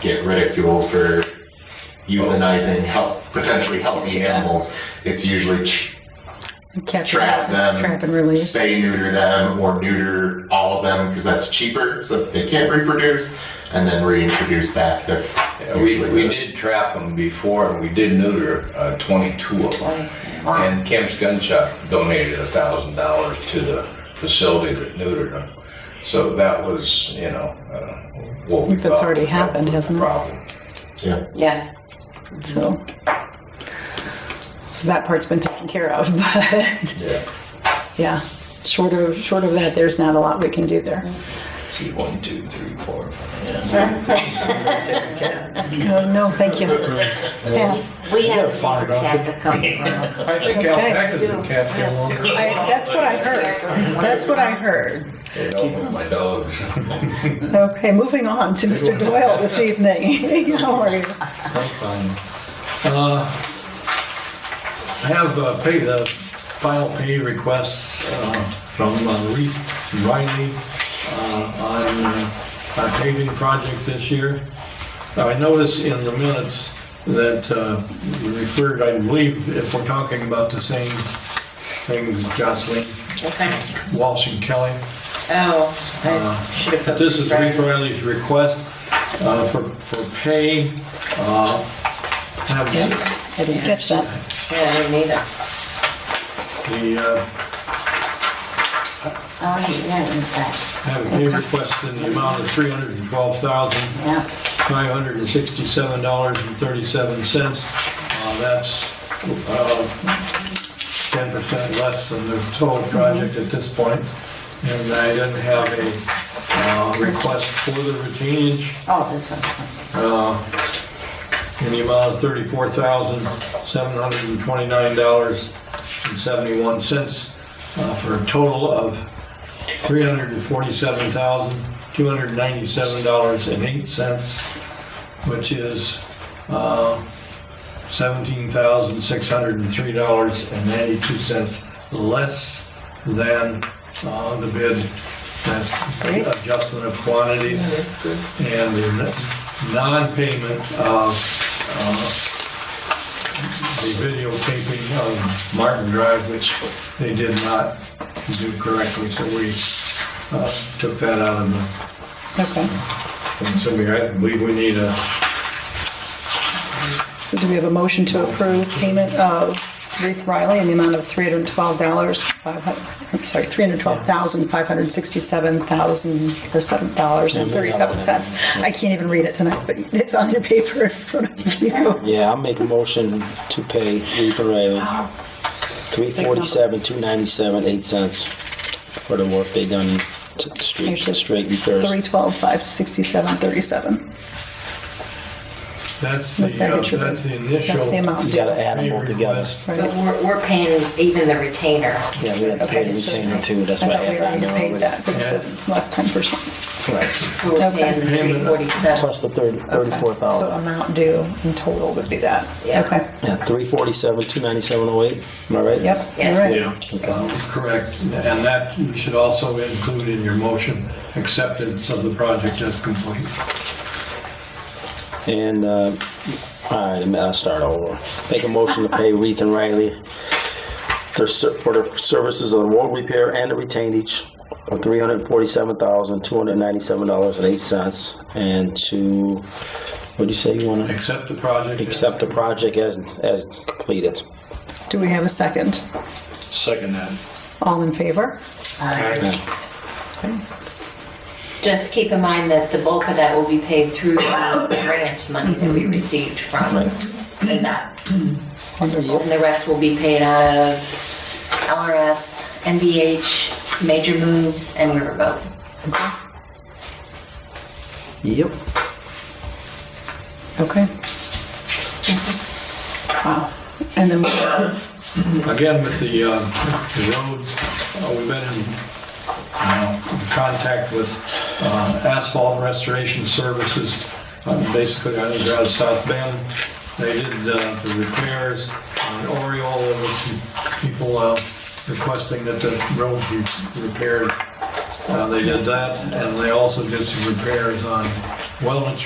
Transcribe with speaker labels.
Speaker 1: get ridiculed for euthanizing help, potentially healthy
Speaker 2: Yeah.
Speaker 1: animals. It's usually ch-
Speaker 2: Catch
Speaker 1: Trap them.
Speaker 2: Trap and release.
Speaker 1: spay neuter them or neuter all of them because that's cheaper, so that they can't reproduce, and then reintroduce back. That's
Speaker 3: We,
Speaker 1: usually
Speaker 3: we
Speaker 1: the-
Speaker 3: did trap them before, and we did neuter uh, 22 of them. And Kemp's Gun Shop donated $1,000 to the facility that neutered them. So that was, you know, uh, what we
Speaker 2: That's
Speaker 3: thought
Speaker 2: already
Speaker 3: was
Speaker 2: happened,
Speaker 3: the
Speaker 2: hasn't it?
Speaker 3: Problem.
Speaker 1: yeah.
Speaker 4: Yes.
Speaker 2: So, so that part's been taken care of. But
Speaker 3: Yeah.
Speaker 2: yeah, short of short of that, there's not a lot we can do there.
Speaker 3: See, one, two, three, four, five.
Speaker 2: No, no, thank you. Pass.
Speaker 4: We have a different cat that comes around.
Speaker 5: I think
Speaker 2: Okay.
Speaker 5: Alpaca's in Catskill longer.
Speaker 2: I, that's what I heard. That's what I heard.
Speaker 3: It opened my dogs.
Speaker 2: Okay, moving on to Mr. Doyle this evening. How are you?
Speaker 5: I'm fine. Uh, I have uh, pay, the final pay requests uh, from uh, Reeve Riley uh, on uh, our paving project this year. Now, I notice in the minutes that uh, we referred, I believe, if we're talking about the same thing, Jocelyn,
Speaker 4: Okay.
Speaker 5: Walsh, and Kelly.
Speaker 4: Oh, I should have.
Speaker 5: But
Speaker 4: put
Speaker 5: This is
Speaker 4: right.
Speaker 5: Rick Riley's request uh, for, for pay. uh, Have the,
Speaker 2: I didn't catch that.
Speaker 4: Yeah, I didn't either.
Speaker 5: uh,
Speaker 4: Oh, yeah, in fact,
Speaker 5: have a pay request in the amount of $312,567.37.
Speaker 4: yeah.
Speaker 5: Uh, That's uh, 10% less than the total project at this point. And I didn't have a uh, request for the retainage
Speaker 4: Oh, this one.
Speaker 5: uh, in the amount of thirty-four thousand, seven hundred and twenty-nine dollars and seventy-one cents, uh, for a total of three hundred and forty-seven thousand, two hundred and ninety-seven dollars and eight cents, which is, uh, seventeen thousand, six hundred and three dollars and ninety-two cents less than, uh, the bid. That's
Speaker 2: great.
Speaker 5: adjustment of quantities and the non-payment of uh, the videotaping of Martin Drive, which they did not do correctly, so we uh, took that out of the,
Speaker 2: Okay.
Speaker 5: and so we, I believe we need a,
Speaker 2: So do we have a motion to approve payment of Ruth Riley in the amount of $312, five hun- I'm sorry, $312,567,000 or seven dollars and 37 cents. I can't even read it tonight, but it's on your paper in front of you.
Speaker 6: Yeah, I'll make a motion to pay Ethan Riley three forty-seven, two ninety-seven, eight cents for the work they done to the street,
Speaker 2: Here's the
Speaker 6: straight repairs.
Speaker 2: 312,567,37.
Speaker 5: that's the,
Speaker 2: Okay,
Speaker 5: uh,
Speaker 2: Richard.
Speaker 5: that's the initial.
Speaker 2: That's the amount.
Speaker 6: You gotta add them all together.
Speaker 5: request.
Speaker 2: Right.
Speaker 4: But we're, we're paying even the retainer.
Speaker 6: Yeah, we had to pay the
Speaker 2: Okay, so-
Speaker 6: retainer too, that's
Speaker 2: I
Speaker 6: why I
Speaker 2: thought we
Speaker 6: had that
Speaker 2: already
Speaker 6: on
Speaker 2: paid
Speaker 6: with
Speaker 2: that,
Speaker 6: it.
Speaker 2: but it says less 10%.
Speaker 6: Right.
Speaker 4: So we're
Speaker 2: Okay.
Speaker 4: paying the
Speaker 5: Payment.
Speaker 4: three forty-seven.
Speaker 6: Plus the thirty,
Speaker 2: Okay.
Speaker 6: thirty-four
Speaker 2: So
Speaker 6: thousand.
Speaker 2: amount due in total would be that.
Speaker 4: Yeah.
Speaker 2: Okay.
Speaker 6: Yeah, three forty-seven, two ninety-seven, oh eight, am I right?
Speaker 2: Yep.
Speaker 4: Yes.
Speaker 2: All right.
Speaker 5: Yeah, um, correct, and that you should also include in your motion, acceptance of the project as complete.
Speaker 6: And, uh, all right, I'll start over. Make a motion to pay Reeve and Riley their ser- for their services on road repair and the retainage of three hundred forty-seven thousand two hundred ninety-seven dollars and eight cents, and to what do you say you want to
Speaker 5: Accept the project.
Speaker 6: accept the project as as completed.
Speaker 2: Do we have a second?
Speaker 3: Second that.
Speaker 2: All in favor?
Speaker 4: Just keep in mind that the bulk of that will be paid through uh, the grant money that we received from
Speaker 6: Right.
Speaker 4: NDOT.
Speaker 2: Wonderful.
Speaker 4: And the rest will be paid out of LRS, NBH, Major Moves, and Riverboat.
Speaker 6: Yep.
Speaker 2: Okay. Wow. And then we have
Speaker 5: Again, with the uh, the roads, uh, we've been in uh, contact with uh, Asphalt Restoration Services, uh, basically underground South Bend. They did uh, the repairs on Oriole, there were some people uh, requesting that the road be repaired. Uh, They did that, and they also did some repairs on Wellness